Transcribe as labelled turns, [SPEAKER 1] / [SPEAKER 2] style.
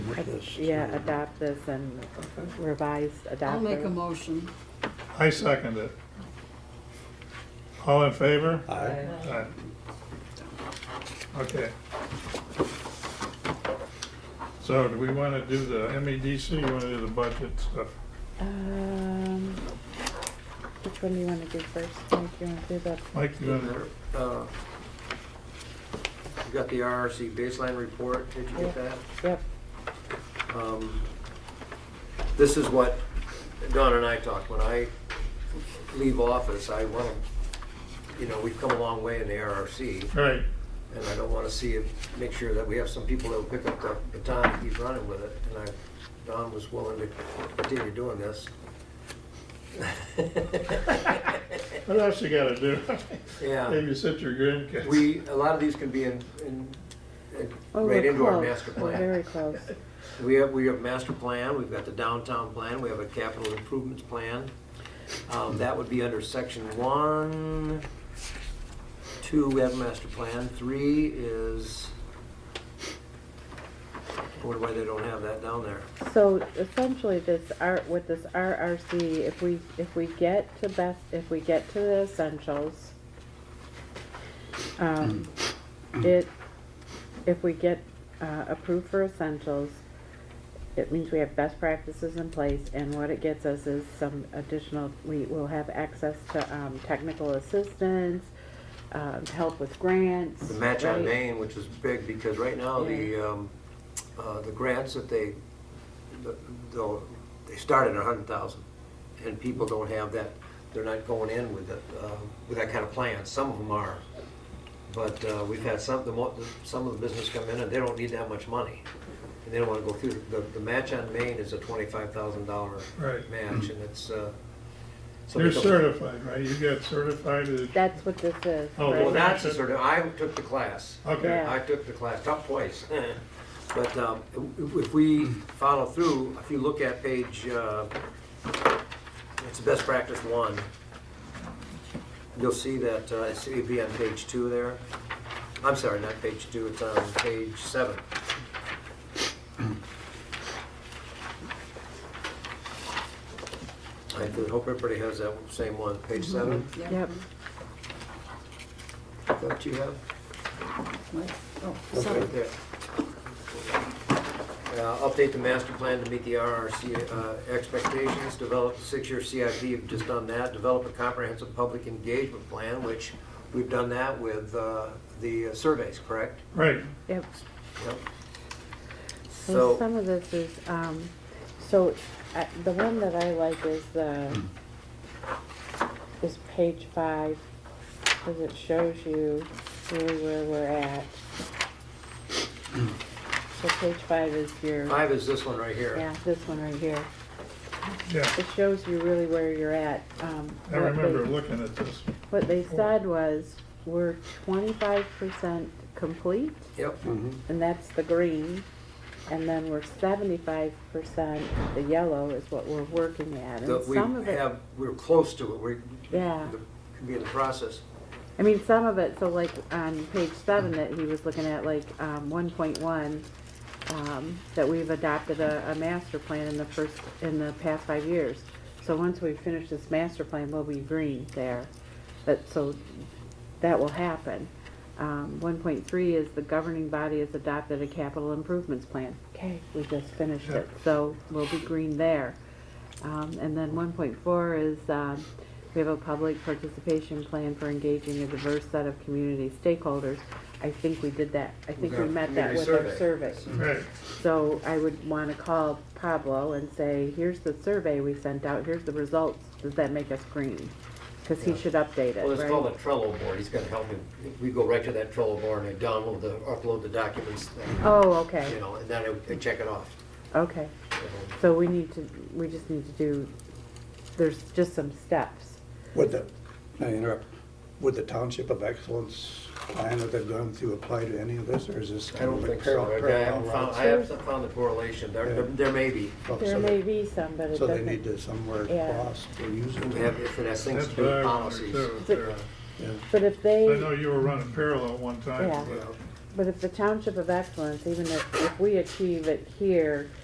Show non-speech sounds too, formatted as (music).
[SPEAKER 1] with
[SPEAKER 2] Ad-
[SPEAKER 1] this.
[SPEAKER 2] Yeah, adopt this and revised, adopt.
[SPEAKER 3] I'll make
[SPEAKER 2] the-
[SPEAKER 3] a motion.
[SPEAKER 4] I second it. All in favor?
[SPEAKER 1] Aye.
[SPEAKER 4] Aye. Okay. So do we want to do the MEDC, you want to do the budget stuff?
[SPEAKER 2] Um, which one do you wanna do first? Mike, you wanna do the,
[SPEAKER 4] Mike, you want to?
[SPEAKER 5] Uh, You got the RRC baseline report, did you get that?
[SPEAKER 2] yep,
[SPEAKER 5] Um, This is what Don and I talked, when I leave office, I want to, you know, we've come a long way in the RRC,
[SPEAKER 4] All right,
[SPEAKER 5] and I don't want to see it, make sure that we have some people that will pick up the baton and keep running with it, and I, Don was willing to continue doing this. (laughs)
[SPEAKER 4] what else you got to do? (laughs)
[SPEAKER 5] Yeah.
[SPEAKER 4] Maybe sit your grin.
[SPEAKER 5] We, a lot of these can be in, in, in-
[SPEAKER 2] oh, we're
[SPEAKER 5] right into our
[SPEAKER 2] close.
[SPEAKER 5] master
[SPEAKER 2] We're
[SPEAKER 5] plan.
[SPEAKER 2] Very close.
[SPEAKER 5] We have, we have master plan, we've got the downtown plan, we have a capital improvements plan. Um, that would be under section one. Two, we have master plan, three is, I wonder why they don't have that down there.
[SPEAKER 2] So essentially this R, with this RRC, if we, if we get to best, if we get to the essentials, um, it, if we get, uh, approved for essentials, it means we have best practices in place and what it gets us is some additional, we will have access to, um, technical assistance, um, help with grants.
[SPEAKER 5] The match on
[SPEAKER 2] right?
[SPEAKER 5] Maine, which is big, because right now,
[SPEAKER 2] Yeah.
[SPEAKER 5] the, um, uh, the grants that they, the- the- they started at a hundred thousand, and people don't have that, they're not going in with it, uh, with that kind of plan, some of them are. But, uh, we've had some, the mo- the- some of the business come in, and they don't need that much money, and they don't wanna go through, the, the match on Maine is a twenty-five thousand dollar
[SPEAKER 4] Right.
[SPEAKER 5] match, and it's, uh. somebody
[SPEAKER 4] You're
[SPEAKER 5] comes-
[SPEAKER 4] certified, right? You got certified as,
[SPEAKER 2] That's what this is,
[SPEAKER 4] Oh,
[SPEAKER 5] Well,
[SPEAKER 2] right?
[SPEAKER 5] that's the sort of, I took the class.
[SPEAKER 4] okay.
[SPEAKER 2] Yeah.
[SPEAKER 5] I took the class, top twice. (laughs) But um, if if we follow through, if you look at page, uh, it's best practice one, you'll see that, uh, it's- it'd be on page two there. I'm sorry, not page two, it's on page seven. I do hope everybody has that same one, page seven,
[SPEAKER 2] Yep.
[SPEAKER 5] that you have?
[SPEAKER 3] Mike? Oh,
[SPEAKER 5] That's
[SPEAKER 3] sorry.
[SPEAKER 5] right there. Uh, Update the master plan to meet the RRC uh, expectations, develop a six-year CIP, you've just done that, develop a comprehensive public engagement plan, which we've done that with uh, the surveys, correct?
[SPEAKER 4] Right,
[SPEAKER 2] Yep.
[SPEAKER 5] Yep.
[SPEAKER 2] And
[SPEAKER 5] So,
[SPEAKER 2] some of this is, um, so, uh, the one that I like is the, is page five, cause it shows you really where we're at. So page five is your,
[SPEAKER 5] five is this one right here.
[SPEAKER 2] yeah, this one right here,
[SPEAKER 4] yeah.
[SPEAKER 2] it shows you really where you're at, um.
[SPEAKER 4] I
[SPEAKER 2] what they-
[SPEAKER 4] remember looking at this.
[SPEAKER 2] What they said was, we're twenty-five percent complete,
[SPEAKER 5] Yep,
[SPEAKER 2] and that's the green. And then we're seventy-five percent, the yellow is what we're working at, and
[SPEAKER 5] That we
[SPEAKER 2] some of it,
[SPEAKER 5] have, we're close to it, we're,
[SPEAKER 2] yeah.
[SPEAKER 5] could be in the process.
[SPEAKER 2] I mean, some of it, so like on page seven that he was looking at, like, um, one point one, um, that we've adopted a, a master plan in the first, in the past five years. So once we finish this master plan, we'll be green there, but, so that will happen. Um, one point three is the governing body has adopted a capital improvements plan. Okay, we just finished it, so we'll be green there. Um, and then one point four is, um, we have a public participation plan for engaging a diverse set of community stakeholders. I think we did that, I think we
[SPEAKER 5] Okay.
[SPEAKER 2] met that
[SPEAKER 5] Community
[SPEAKER 2] with our
[SPEAKER 5] survey. Mm-hmm.
[SPEAKER 2] survey.
[SPEAKER 4] Right,
[SPEAKER 2] So I would wanna call Pablo and say, here's the survey we sent out, here's the results, does that make us green? Cause he
[SPEAKER 5] Yeah.
[SPEAKER 2] should update it,
[SPEAKER 5] Well, it's called a
[SPEAKER 2] right?
[SPEAKER 5] Trello board, he's gonna help me, we go right to that Trello board and I download the, upload the documents,
[SPEAKER 2] Oh,
[SPEAKER 5] you
[SPEAKER 2] okay,
[SPEAKER 5] know, and then I- I check it off.
[SPEAKER 2] okay.
[SPEAKER 5] you know.
[SPEAKER 2] So we need to, we just need to do, there's just some steps.
[SPEAKER 1] Would the, may I interrupt, would the Township of Excellence plan that they've gone through apply to any of this, or is this
[SPEAKER 5] I
[SPEAKER 1] kind
[SPEAKER 5] don't
[SPEAKER 1] of a
[SPEAKER 5] think so.
[SPEAKER 1] parallel?
[SPEAKER 5] I haven't found, I
[SPEAKER 1] parallel
[SPEAKER 5] haven't found the correlation. There, there- there may be.
[SPEAKER 1] route?
[SPEAKER 2] There
[SPEAKER 1] Oh, So
[SPEAKER 2] may
[SPEAKER 1] they-
[SPEAKER 2] be some, but it
[SPEAKER 1] Oh, So they need
[SPEAKER 2] doesn't,
[SPEAKER 1] to somewhere
[SPEAKER 2] Yeah.
[SPEAKER 1] cross or use
[SPEAKER 5] We
[SPEAKER 1] it.
[SPEAKER 5] have- If it has things
[SPEAKER 4] that's
[SPEAKER 5] to do
[SPEAKER 4] what I
[SPEAKER 5] with
[SPEAKER 4] wondered
[SPEAKER 5] policies.
[SPEAKER 4] too. Tara.
[SPEAKER 1] Yeah.
[SPEAKER 2] but if
[SPEAKER 4] I
[SPEAKER 2] they,
[SPEAKER 4] know you were running parallel one time.
[SPEAKER 2] Yeah.
[SPEAKER 5] Yeah.
[SPEAKER 4] but
[SPEAKER 2] But if the Township of Excellence, even if, if we achieve it here,